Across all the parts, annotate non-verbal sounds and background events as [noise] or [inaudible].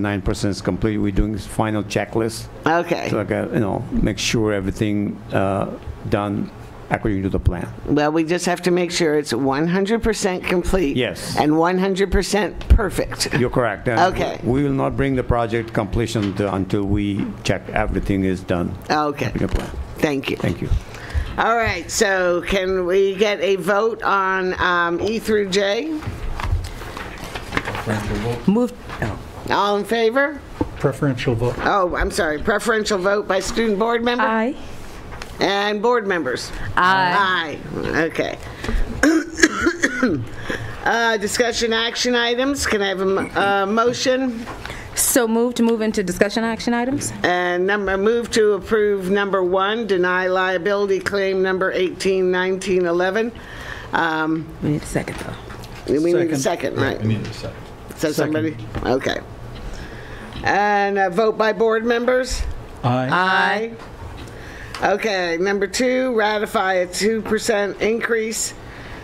0.9% is complete. We're doing this final checklist to Okay. like, uh, you know, make sure everything uh, done according to the plan. Well, we just have to make sure it's 100% complete. Yes. And 100% perfect. You're correct. And Okay. We will not bring the project completion until- until we check everything is done. Okay. Your plan. Thank you. Thank you. All right, so can we get a vote on um, E through J? Move, oh, All in favor? Preferential vote. Oh, I'm sorry, preferential vote by student board member aye. and board members. Aye. Aye, okay. [coughs] Uh, Discussion action items, can I have a m- a motion? So move to move into discussion action items? And number, move to approve number one, deny liability claim number 18, 19, 11. Um, We need a second, though. We need a second, Second. right? We need a second. So somebody, okay. And a vote by board members? Aye. Aye. Okay, number two, ratify a 2% increase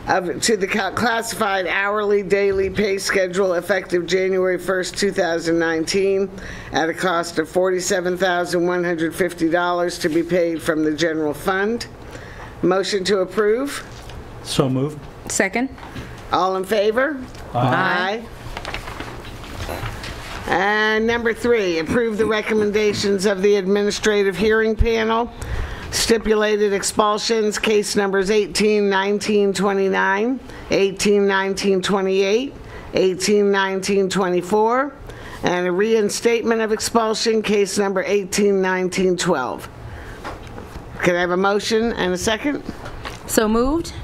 of, to the ca- classified hourly daily pay schedule effective January 1st, 2019, at a cost of $47,150 to be paid from the general fund. Motion to approve? So moved. Second? All in favor? Aye. Aye. And number three, approve the recommendations of the administrative hearing panel, stipulated expulsions, case numbers 18, 19, 29, 18, 19, 28, 18, 19, 24, and a reinstatement of expulsion, case number 18, 19, 12. Can I have a motion and a second? So moved?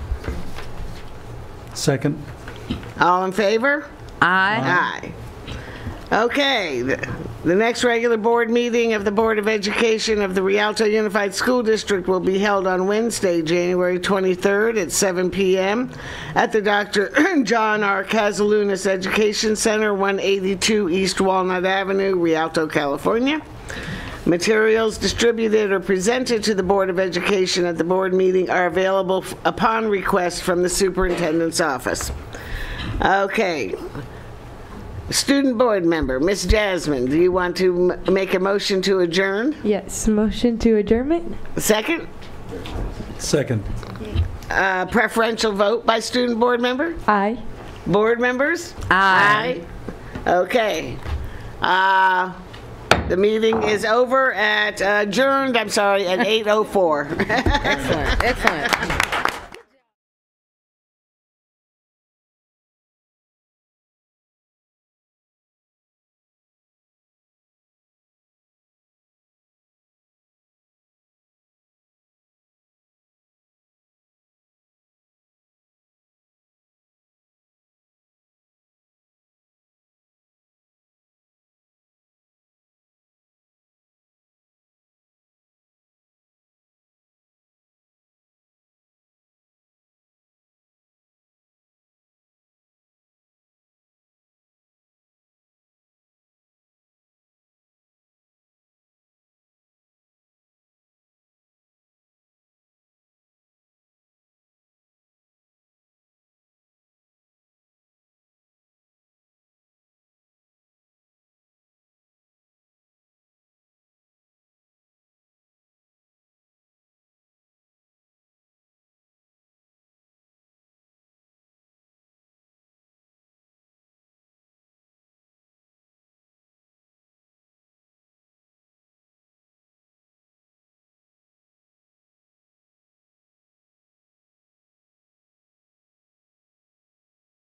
Second. All in favor? Aye. Aye. Okay, the the next regular board meeting of the Board of Education of the Rialto Unified School District will be held on Wednesday, January 23rd at 7 PM at the Dr. [clears throat] John R. Casalunas Education Center, 182 East Walnut Avenue, Rialto, California. Materials distributed or presented to the Board of Education at the board meeting are available f- upon request from the superintendent's office. Okay, Student Board Member, Miss Jasmine, do you want to m- make a motion to adjourn? Yes, motion to adjournment? Second, Second. uh, preferential vote by Student Board Member? Aye. Board members? Aye. Aye. Okay. Uh, The meeting is uh, oh over at, adjourned, I'm sorry, at 8:04. Excellent.